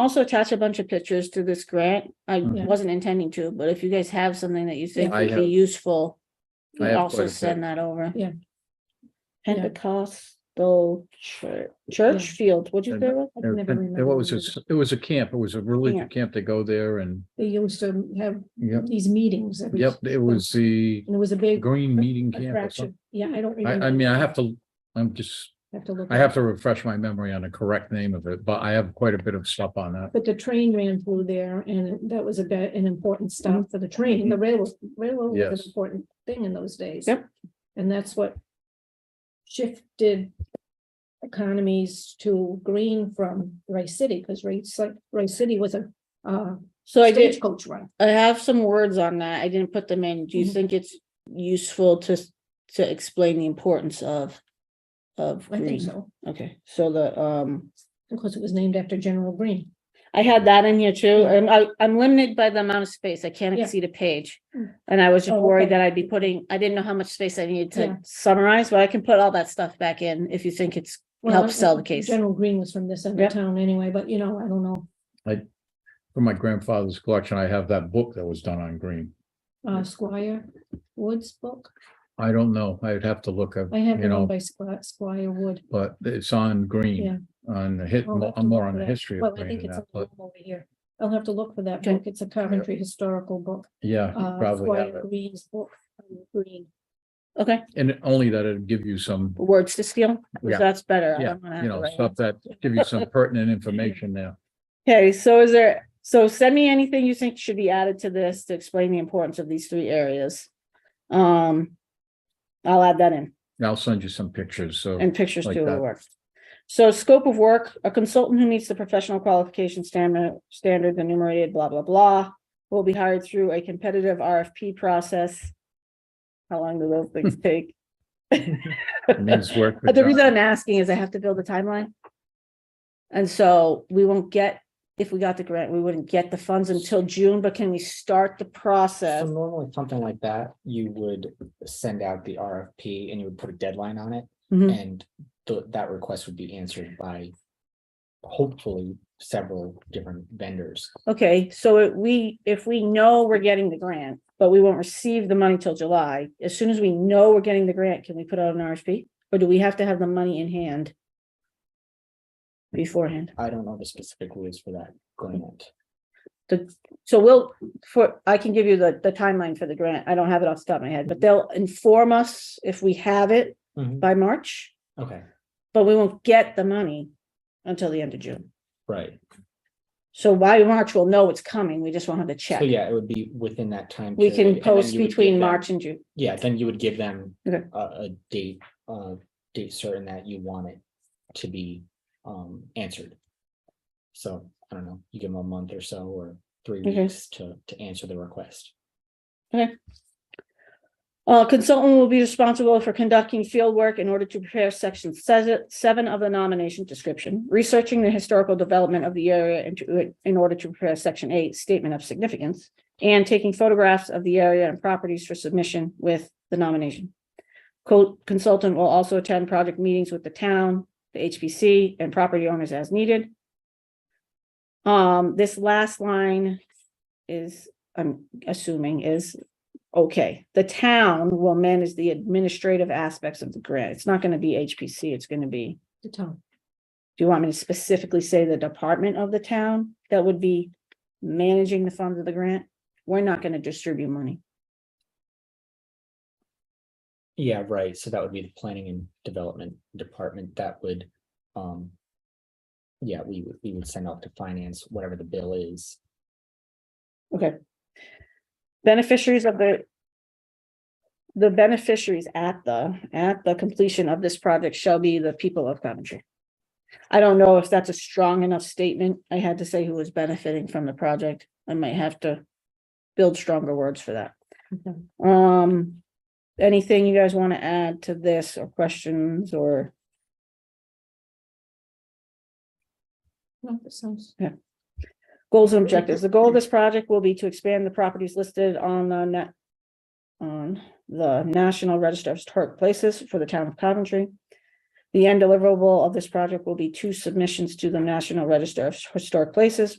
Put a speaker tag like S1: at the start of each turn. S1: also attach a bunch of pictures to this grant. I
S2: Yeah.
S1: wasn't intending to, but if you guys have something that you think
S3: Mm-hmm. I
S1: would be
S3: have-
S1: useful,
S3: I
S1: you
S3: have quite
S1: also
S3: a
S1: send that over.
S2: Yeah. Yeah.
S1: Pentecostal Church, Church Field, what'd you say?
S3: And-
S1: it was?
S2: I've
S3: And
S2: never
S3: and what was
S2: remembered.
S3: it? It was a camp. It was a religious
S1: Camp.
S3: camp. They go there and,
S2: They used to have
S3: yep,
S2: these meetings. every-
S3: yep, it was the
S2: And it was a big
S3: Green Meeting Camp or
S2: attraction.
S3: something.
S2: Yeah, I don't
S3: I,
S2: remember.
S3: I mean, I have to, I'm just,
S2: Have to look.
S3: I
S2: it
S3: have
S2: up.
S3: to refresh my memory on the correct name of it, but I have quite a bit of stuff on that.
S2: But the train ran through there and that was a bit an important stop for the train. The railroad, railroad was
S3: Yes.
S2: an important thing in those days.
S1: Yep.
S2: And that's what shifted economies to green from Rice City, because Rice, like, Rice City was a, uh,
S1: So I did,
S2: stagecoach run.
S1: I have some words on that. I didn't put them in. Do you
S2: Mhm.
S1: think it's useful to, s- to explain the importance of, of
S2: I think
S1: green?
S2: so,
S1: Okay, so the, um,
S2: because it was named after General Green.
S1: I had that in here too, and I, I'm limited by the amount of space, I can't
S2: Yeah.
S1: exceed a page.
S2: Mm.
S1: And I was just
S2: Oh,
S1: worried
S2: okay.
S1: that I'd be putting, I didn't know how much space I needed
S2: Yeah.
S1: to summarize, but I can put all that stuff back in if you think it's,
S2: Well,
S1: Helps sell the case.
S2: General Green was from this end of
S1: Yep.
S2: town anyway, but you know, I don't know,
S3: From my grandfather's collection, I have that book that was done on green.
S2: uh, Squire Wood's book.
S3: I don't know. I'd have to look up,
S2: I have
S3: you
S2: it owned
S3: know,
S2: by Squire, Squire Wood.
S3: but it's on green. On the hit,
S2: I'll have to
S3: I'm more
S2: look
S3: on
S2: for
S3: the
S2: that.
S3: history
S2: Well,
S3: of
S2: I
S3: green
S2: think
S3: than
S2: it's
S3: that,
S2: up
S3: but
S2: over here. I'll have to look for that
S1: Okay.
S2: book. It's a Coventry historical book.
S3: yeah, you
S2: Uh,
S3: probably have
S2: Squire
S3: it.
S2: Green's book, um, Green.
S1: okay,
S3: And only that it'd give you some,
S1: words to steal, 'Cause
S3: Yeah.
S1: that's better. I
S3: Yeah,
S1: don't wanna have
S3: you
S1: to
S3: know,
S1: write
S3: stuff that give you some pertinent information there.
S1: it. Okay, so is there, so send me anything you think should be added to this to explain the importance of these three areas. Um, I'll add that in.
S3: And I'll send you some pictures, so.
S1: And pictures
S3: like
S1: too will
S3: that.
S1: work. So scope of work, a consultant who meets the professional qualification standard, standards enumerated, blah, blah, blah. Will be hired through a competitive RFP process. How long do those things take?
S3: it means work for
S1: But the
S3: John.
S1: reason I'm asking is I have to build a timeline. And so we won't get, if we got the grant, we wouldn't get the funds until June, but can we start the
S4: So
S1: process?
S4: normally something like that, you would send out the RFP and you would put a deadline on it
S1: Mhm.
S4: and the, that request would be answered by hopefully several different vendors.
S1: Okay, so it- we, if we know we're getting the grant, but we won't receive the money till July, as soon as we know we're getting the grant, can we put out an RFP? Or do we have to have the money in hand? Beforehand,
S4: I don't know the specific rules for that grant.
S1: the, so we'll, for, I can give you the, the timeline for the grant, I don't have it off the top of my head, but they'll inform us if we have it
S4: Mhm.
S1: by March.
S4: Okay,
S1: But we won't get the money until the end of June,
S4: right.
S1: so by March, we'll know it's coming, we just won't have the check.
S4: So yeah, it would be within that time.
S1: We
S4: period,
S1: can
S4: and then
S1: post
S4: you would give
S1: between
S4: them-
S1: March and June.
S4: Yeah, then you would give them
S1: Okay.
S4: a, a date, uh, date certain that you want it to be, um, answered. So, I don't know, you give them a month or so, or three
S1: Okay.
S4: weeks to, to answer the request.
S1: Uh, consultant will be responsible for conducting field work in order to prepare section se- seven of the nomination description, researching the historical development of the area and to- in order to prepare section eight statement of significance, and taking photographs of the area and properties for submission with the nomination. Co- Consultant will also attend project meetings with the town, the HPC, and property owners as needed. Um, this last line is, I'm assuming, is Okay, the town will manage the administrative aspects of the grant. It's not gonna be HPC, it's gonna be,
S2: The town.
S1: do you want me to specifically say the department of the town that would be managing the funds of the grant? We're not gonna distribute money.
S4: Yeah, right, so that would be the planning and development department that would, um. Yeah, we would, we would send off to finance, whatever the bill is,
S1: Beneficiaries of the the beneficiaries at the, at the completion of this project shall be the people of Coventry. I don't know if that's a strong enough statement. I had to say who was benefiting from the project. I might have to build stronger words for that.
S2: Okay.
S1: Um, anything you guys want to add to this or questions or,
S2: No, that sounds,
S1: goals and objectives. The goal of this project will be to expand the properties listed on the net on the National Register of Historic Places for the town of Coventry. The end deliverable of this project will be two submissions to the National Register of Historic Places,